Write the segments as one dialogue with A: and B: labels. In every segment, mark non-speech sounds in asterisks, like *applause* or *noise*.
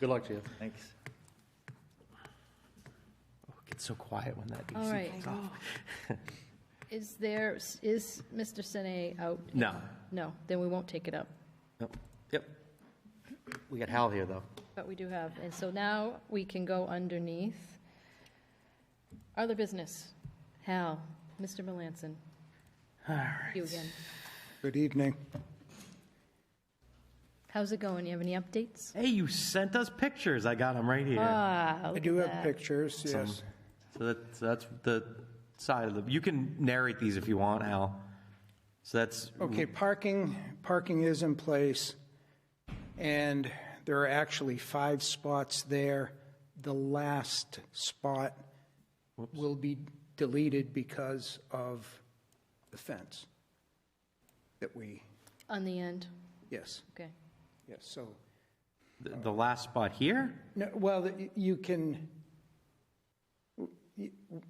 A: Good luck to you.
B: Thanks.
C: Oh, It gets so quiet when that
D: All right.
C: DC goes off.
D: Is there, is Mr. Sine out?
C: No.
D: No, then we won't take it up,
C: Nope. Yep.
A: We got Hal here, though.
D: but we do have, and so now we can go underneath. Other business, Hal, Mr. Melanson. All right. You again.
E: Good evening.
D: How's it going? You have any updates?
C: Hey, you sent us pictures. I got them right here.
D: Ah,
E: I
D: look
E: do
D: at
E: have
D: that.
E: pictures, yes.
D: Oh.
C: So that's, that's the side of the, you can narrate these if you want, Al. So that's,
E: Okay, parking, parking is in place, and there are actually five spots there. The last spot will be deleted because of the fence that we,
D: On the end,
E: yes,
D: okay.
E: yes, so,
C: the the last spot here?
E: no, well, y- you can,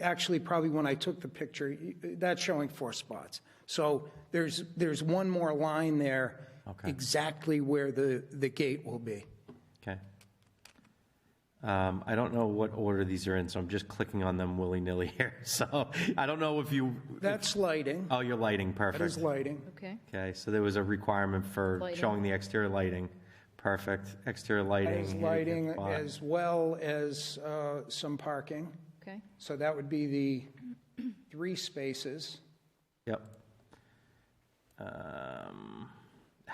E: actually, probably when I took the picture, y- that's showing four spots. So there's, there's one more line there.
C: Okay.
E: Exactly where the, the gate will be.
C: Okay. Um, I don't know what order these are in, so I'm just clicking on them willy-nilly here. *laughs* So I don't know if you,
E: That's lighting.
C: oh, your lighting,
E: That is
C: perfect.
E: lighting.
D: Okay,
C: Okay, so there was a requirement for
D: Lighting.
C: showing the exterior lighting. Perfect, exterior
E: That
C: lighting.
E: is
C: handicap
E: lighting
C: spot.
E: as well as uh, some parking.
D: okay.
E: So that would be the three spaces.
C: Yep. Um,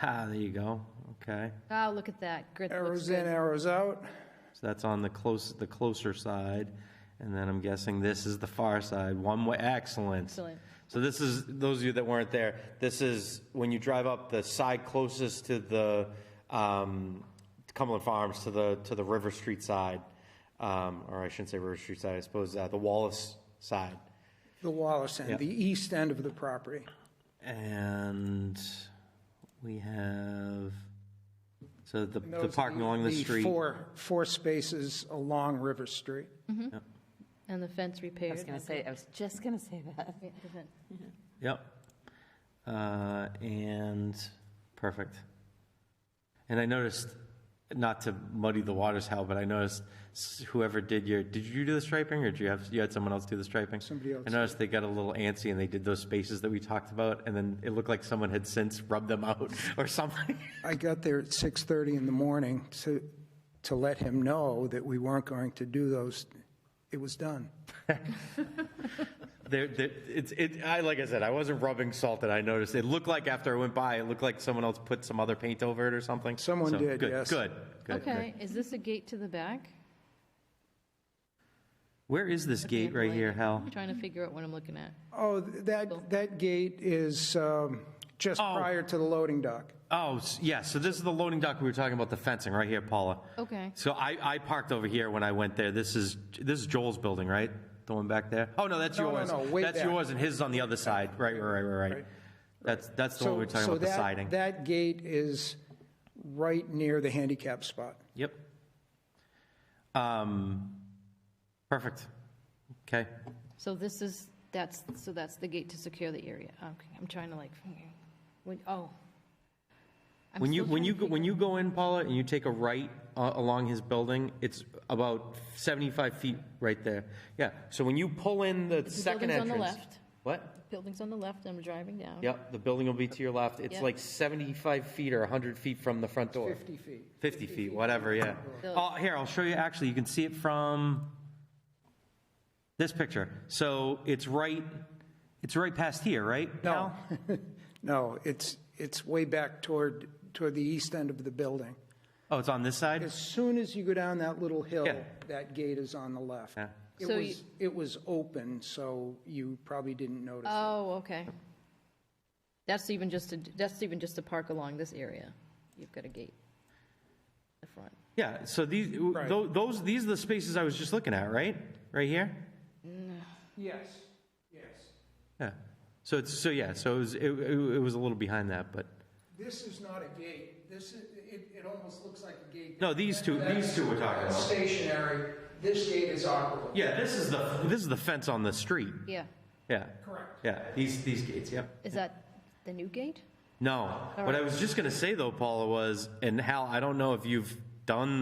C: ah, there you go. Okay.
D: Ah, look at that. Grit looks
E: Arrows
D: good.
E: in, arrows out.
C: So that's on the close, the closer side, and then I'm guessing this is the far side, one way, excellent.
D: Excellent.
C: So this is, those of you that weren't there, this is when you drive up the side closest to the, um, Cumberland Farms, to the, to the River Street side, um, or I shouldn't say River Street side, I suppose, uh, the Wallace side.
E: The Wallace end,
C: Yep.
E: the east end of the property.
C: And we have, so the,
E: And
C: the
E: those are
C: parking along the street.
E: Four, four spaces along River Street.
D: And the fence repaired.
F: I was going to say, I was just going to say that.
D: Yeah, the fence.
C: Yep. Uh, and perfect. And I noticed, not to muddy the waters, Hal, but I noticed s- whoever did your, did you do the striping or did you have, you had someone else do the striping?
E: Somebody else
C: I noticed they got a little antsy and they did those spaces that we talked about and then it looked like someone had since rubbed them out *laughs* or something.
E: I got there at 6:30 in the morning to, to let him know that we weren't going to do those. It was done.
C: There, there, it's, it, I, like I said, I wasn't rubbing salt and I noticed, it looked like after I went by, it looked like someone else put some other paint over it or something.
E: Someone
C: So,
E: did,
C: good,
E: yes.
C: Good, good.
D: Okay, is this a gate to the back?
C: Where is this gate right here, Hal?
D: I'm trying to figure out what I'm looking at.
E: Oh, that, that gate is um, just
C: Oh.
E: prior to the loading dock.
C: Oh, s- yeah, so this is the loading dock we were talking about, the fencing, right here, Paula.
D: Okay.
C: So I, I parked over here when I went there. This is, this is Joel's building, right? The one back there? Oh, no, that's
E: No, no,
C: yours.
E: no, way
C: That's
E: back.
C: yours and his is on the other side. Right, right, right, right, right. That's, that's the one we were talking
E: So- so
C: about, the
E: that-
C: siding.
E: That gate is right near the handicap spot.
C: Yep. Um, perfect. Okay.
D: So this is, that's, so that's the gate to secure the area. Okay, I'm trying to like, when, oh. I'm
C: When you,
D: still
C: when
D: trying
C: you,
D: to
C: go-
D: figure-
C: when you go in, Paula, and you take a right uh, along his building, it's about 75 feet right there. Yeah, so when you pull in the second
D: building's on
C: entrance.
D: the left.
C: What?
D: Building's on the left, I'm driving down.
C: Yep, the building will be to your left. It's
D: Yep.
C: like 75 feet or 100 feet from the front door.
E: 50 feet.
C: 50 feet, whatever, yeah. Oh, here, I'll show you, actually, you can see it from this picture. So it's right, it's right past here, right?
E: No, *laughs*
C: Al?
E: no, it's, it's way back toward, toward the east end of the building.
C: Oh, it's on this side?
E: As soon as you go down that little hill,
C: Yeah.
E: that gate is on the left.
C: Yeah.
E: It
D: So
E: was,
D: you-
E: it was open, so you probably didn't notice. it.
D: Oh, okay. That's even just to, that's even just to park along this area. You've got a gate. The front.
C: Yeah, so these, tho- those, these are the spaces I was just looking at, right? Right here?
E: Yes, yes.
C: Yeah. So it's, so yeah, so it was, it- it it was a little behind that, but,
E: This is not a gate. This is, it, it almost looks like a gate.
C: no, these two, these two we're talking about.
E: Stationary. This gate is operable.
C: Yeah, this is the, this is the fence on the street.
D: Yeah.
C: Yeah.
E: Correct.
C: Yeah, these, these gates, yep.
D: Is that the new gate?
C: No, what I was just gonna say though, Paula, was, and Hal, I don't know if you've done